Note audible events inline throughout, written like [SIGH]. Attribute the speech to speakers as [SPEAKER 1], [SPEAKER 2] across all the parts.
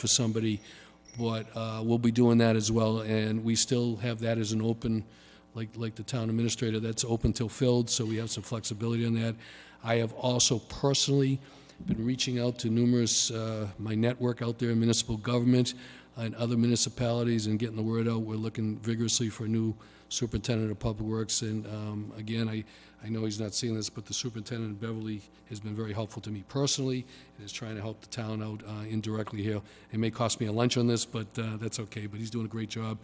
[SPEAKER 1] for somebody, but uh, we'll be doing that as well, and we still have that as an open, like, like the town administrator, that's open till filled, so we have some flexibility on that. I have also personally been reaching out to numerous, uh, my network out there in municipal government and other municipalities and getting the word out. We're looking vigorously for a new superintendent of public works, and um, again, I, I know he's not seeing this, but the superintendent in Beverly has been very helpful to me personally, and is trying to help the town out uh, indirectly here. It may cost me a lunch on this, but uh, that's okay, but he's doing a great job.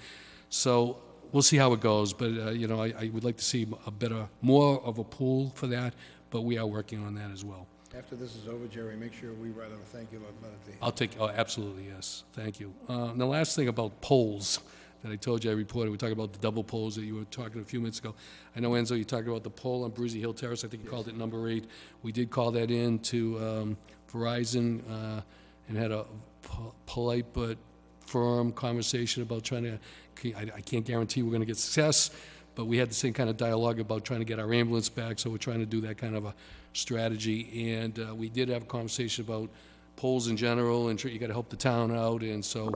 [SPEAKER 1] So we'll see how it goes, but, uh, you know, I, I would like to see a better, more of a pool for that, but we are working on that as well.
[SPEAKER 2] After this is over, Jerry, make sure we write out a thank you letter to him.
[SPEAKER 1] I'll take, oh, absolutely, yes, thank you. Uh, And the last thing about polls that I told you I reported, we talked about the double polls that you were talking a few minutes ago. I know, Enzo, you talked about the poll on Breezy Hill Terrace, I think you called it number eight. We did call that in to um, Verizon uh, and had a po- polite but firm conversation about trying to, I I can't guarantee we're going to get success, but we had the same kind of dialogue about trying to get our ambulance back, so we're trying to do that kind of a strategy. And uh, we did have a conversation about polls in general, and tr- you got to help the town out, and so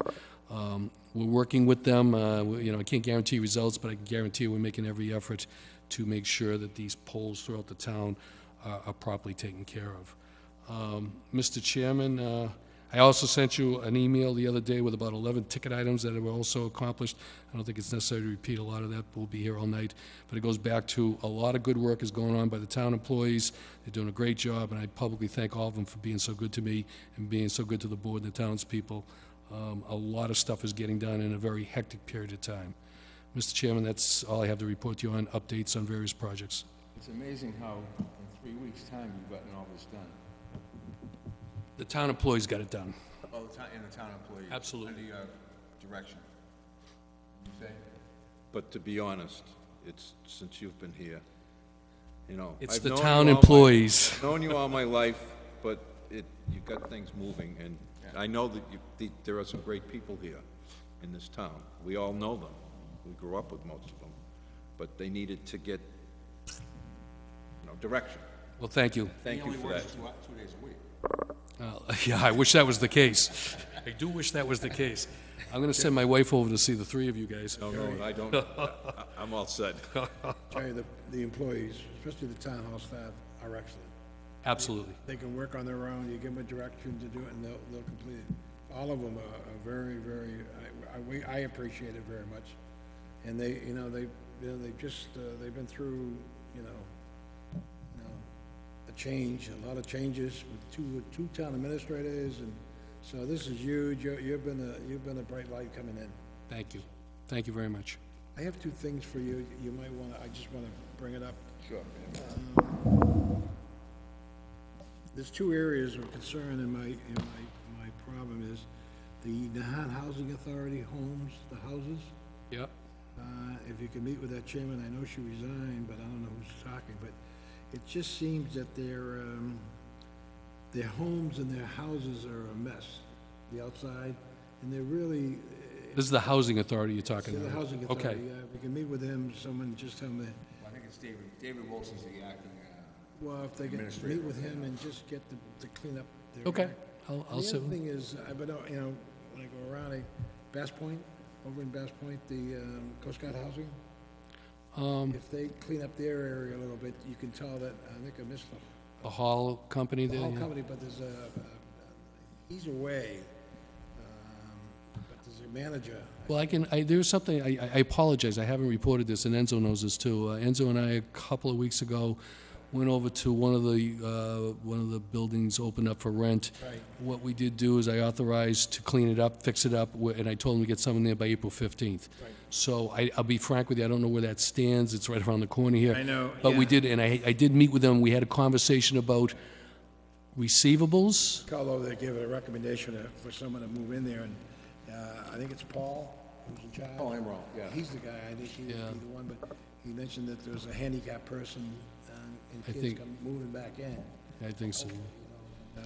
[SPEAKER 1] um, we're working with them. Uh, we- You know, I can't guarantee results, but I can guarantee we're making every effort to make sure that these polls throughout the town are are properly taken care of. Um, Mr. Chairman, uh, I also sent you an email the other day with about 11 ticket items that were also accomplished. I don't think it's necessary to repeat a lot of that, we'll be here all night. But it goes back to, a lot of good work is going on by the town employees. They're doing a great job, and I publicly thank all of them for being so good to me and being so good to the board and the townspeople. Um, A lot of stuff is getting done in a very hectic period of time. Mr. Chairman, that's all I have to report to you on updates on various projects.
[SPEAKER 3] It's amazing how in three weeks' time you've gotten all this done.
[SPEAKER 1] The town employees got it done.
[SPEAKER 3] Oh, the town, and the town employees.
[SPEAKER 1] Absolutely.
[SPEAKER 3] Under your direction. You say? But to be honest, it's, since you've been here, you know.
[SPEAKER 1] It's
[SPEAKER 3] I've
[SPEAKER 1] the
[SPEAKER 3] known you
[SPEAKER 1] town
[SPEAKER 3] all my-
[SPEAKER 1] employees.
[SPEAKER 3] Known you all my life, but it, you've got things moving, and I know that you, the- there are some great people here in this town. We all know them. We grew up with most of them, but they needed to get, you know, direction.
[SPEAKER 1] Well, thank you.
[SPEAKER 3] Thank you for that.
[SPEAKER 1] Uh, [LAUGHS] Yeah, I wish that was the case. I do wish that was the case. I'm going to send my wife over to see the three of you guys.
[SPEAKER 3] No, no,
[SPEAKER 1] [LAUGHS]
[SPEAKER 3] I don't, I- I'm all set.
[SPEAKER 2] Jerry, the, the employees, especially the town hall staff, are excellent.
[SPEAKER 1] Absolutely.
[SPEAKER 2] They can work on their own, you give them a direction to do it, and they'll, they'll complete it. All of them are are very, very, I- I, we, I appreciate it very much. And they, you know, they, you know, they've just, uh, they've been through, you know, you know, a change, a lot of changes with two, with two town administrators, and so this is huge, you, you've been a, you've been a bright light coming in.
[SPEAKER 1] Thank you. Thank you very much.
[SPEAKER 2] I have two things for you, you might wanna, I just wanna bring it up. Um,
[SPEAKER 3] Sure.
[SPEAKER 2] There's two areas of concern in my, in my, my problem is the Nahat Housing Authority homes, the houses.
[SPEAKER 1] Yep.
[SPEAKER 2] Uh, if you can meet with that chairman, I know she resigned, but I don't know who's talking, but it just seems that their, um, their homes and their houses are a mess, the outside, and they're really,
[SPEAKER 1] This is the housing authority you're talking
[SPEAKER 2] the
[SPEAKER 1] about?
[SPEAKER 2] housing authority.
[SPEAKER 1] Okay.
[SPEAKER 2] yeah, If you can meet with them, someone just tell me,
[SPEAKER 4] I think it's David, David Wilson's the acting, uh,
[SPEAKER 2] well, if they can meet with him and just get them to clean up their.
[SPEAKER 1] Okay.
[SPEAKER 2] act.
[SPEAKER 1] I'll,
[SPEAKER 2] And
[SPEAKER 1] I'll sit.
[SPEAKER 2] The other thing is, I've been, out, you know, when I go around, I, Bass Point, over in Bass Point, the um, Coast Guard housing.
[SPEAKER 1] Um,
[SPEAKER 2] If they clean up their area a little bit, you can tell that, uh, I think I missed the
[SPEAKER 1] The hall company there?
[SPEAKER 2] whole
[SPEAKER 1] yeah.
[SPEAKER 2] company, but there's a, a- he's away. um, But there's a manager,
[SPEAKER 1] Well, I can, I, there's something, I, I apologize, I haven't reported this, and Enzo knows this too. Uh, Enzo and I, a couple of weeks ago, went over to one of the, uh, one of the buildings opened up for rent.
[SPEAKER 2] Right.
[SPEAKER 1] What we did do is I authorized to clean it up, fix it up, wh- and I told him to get someone there by April fifteenth.
[SPEAKER 2] Right.
[SPEAKER 1] So I, I'll be frank with you, I don't know where that stands, it's right around the corner here.
[SPEAKER 2] I know,
[SPEAKER 1] But we
[SPEAKER 2] yeah.
[SPEAKER 1] did, and I, I did meet with them, we had a conversation about receivables.
[SPEAKER 2] Carlo, they gave a recommendation to- for someone to move in there, and uh, I think it's Paul who's in charge.
[SPEAKER 3] Paul Emerald, yeah.
[SPEAKER 2] He's the guy, I think he would be the one, but he mentioned that there's a handicapped person uh, and
[SPEAKER 1] I
[SPEAKER 2] kids
[SPEAKER 1] think-
[SPEAKER 2] come moving back in
[SPEAKER 1] I think so.
[SPEAKER 2] uh,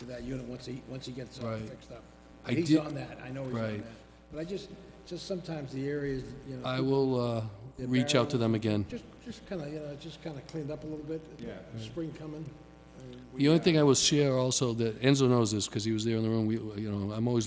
[SPEAKER 2] to that unit once he, once he gets it all
[SPEAKER 1] Right.
[SPEAKER 2] fixed up.
[SPEAKER 1] I
[SPEAKER 2] He's
[SPEAKER 1] did-
[SPEAKER 2] on that, I know he's on
[SPEAKER 1] Right.
[SPEAKER 2] that. But I just, just sometimes the areas, you know,
[SPEAKER 1] I will, uh, reach out to them again.
[SPEAKER 2] just, just kind of, you know, just kind of cleaned up a little bit.
[SPEAKER 3] Yeah.
[SPEAKER 2] Spring coming. uh,
[SPEAKER 1] The only thing I will share also, that Enzo knows this, because he was there in the room, we, you know, I'm always